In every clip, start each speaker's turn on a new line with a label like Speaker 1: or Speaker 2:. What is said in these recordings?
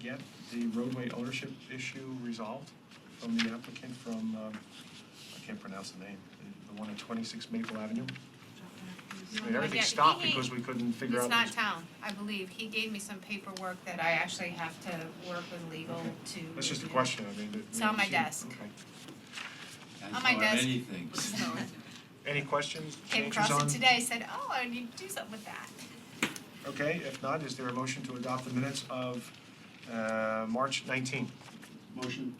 Speaker 1: get the roadway ownership issue resolved from the applicant from, um, I can't pronounce the name, the- the one at 26 Maple Avenue? I mean,
Speaker 2: No,
Speaker 1: everything
Speaker 2: yeah,
Speaker 1: stopped
Speaker 2: he- he-
Speaker 1: because we couldn't figure
Speaker 2: It's
Speaker 1: out.
Speaker 2: not
Speaker 1: this-
Speaker 2: town, I believe. He gave me some paperwork that I actually have to work with legal to.
Speaker 1: That's just a
Speaker 2: review.
Speaker 1: question, I mean. that-
Speaker 2: It's on my
Speaker 1: she-
Speaker 2: desk.
Speaker 1: okay.
Speaker 2: On my desk.
Speaker 3: anything.
Speaker 2: So,
Speaker 1: Any questions?
Speaker 2: Came
Speaker 1: Changes
Speaker 2: across
Speaker 1: on-
Speaker 2: it today, said, oh, I need to do something with that.
Speaker 1: Okay, if not, is there a motion to adopt the minutes of uh, March 19?
Speaker 3: Motion.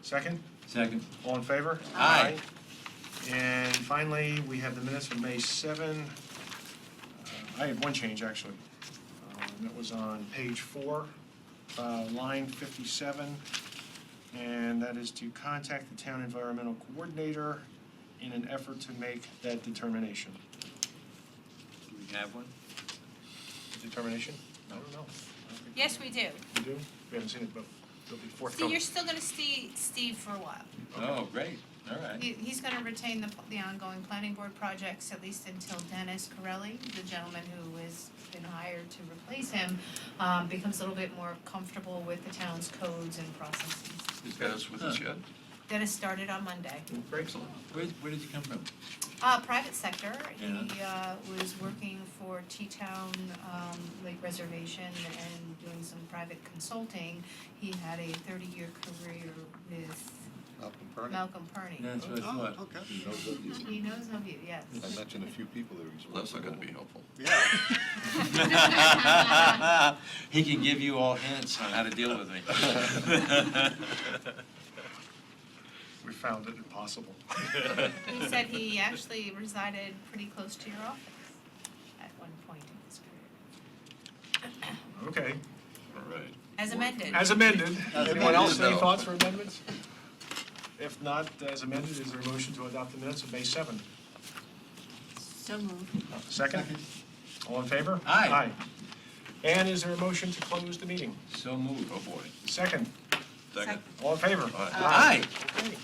Speaker 1: Second?
Speaker 3: Second.
Speaker 1: All in favor?
Speaker 3: Aye.
Speaker 1: Aye. And finally, we have the minutes from May 7. Uh, I have one change, actually. Uh, That was on page four, uh, line 57. And that is to contact the town environmental coordinator in an effort to make that determination.
Speaker 3: Do we have one?
Speaker 1: Determination? I don't know. I don't think-
Speaker 2: Yes, we do.
Speaker 1: We do? We haven't seen it, but it'll be
Speaker 2: See,
Speaker 1: forthcoming.
Speaker 2: you're still gonna see Steve for a while.
Speaker 3: Oh, great, all right.
Speaker 2: He, he's gonna retain the, the ongoing planning board projects at least until Dennis Corelli, the gentleman who has been hired to replace him, um, becomes a little bit more comfortable with the town's codes and processes.
Speaker 4: Is Dennis with us yet?
Speaker 2: Dennis started on Monday.
Speaker 1: Great.
Speaker 3: Where, where did you come from?
Speaker 2: Uh, private sector, he, uh, was working for T-Town, um, Lake Reservation and doing some private consulting. He had a thirty-year career with
Speaker 5: Malcolm Pernick.
Speaker 2: Malcolm Perney.
Speaker 3: That's what I
Speaker 5: Oh,
Speaker 3: thought.
Speaker 5: okay. He knows that he's-
Speaker 2: He knows of you, yes.
Speaker 5: I mentioned a few people that he's.
Speaker 4: That's not gonna be helpful.
Speaker 5: Yeah.
Speaker 3: He can give you all hints on how to deal with me.
Speaker 1: We found it impossible.
Speaker 2: He said he actually resided pretty close to your office at one point in his career.
Speaker 1: Okay.
Speaker 2: uh,
Speaker 4: All right.
Speaker 2: As amended.
Speaker 1: As amended.
Speaker 3: As
Speaker 1: Anyone else,
Speaker 4: amended.
Speaker 1: any thoughts or amendments? If not, as amended, is there a motion to adopt the minutes of May 7?
Speaker 2: So moved.
Speaker 1: Second? All in favor?
Speaker 3: Aye.
Speaker 1: Aye. And is there a motion to close the meeting?
Speaker 3: So moved.
Speaker 4: Oh, boy.
Speaker 1: Second?
Speaker 4: Second.
Speaker 2: uh,
Speaker 1: All in favor?
Speaker 4: Aye.
Speaker 3: Aye.
Speaker 1: Okay.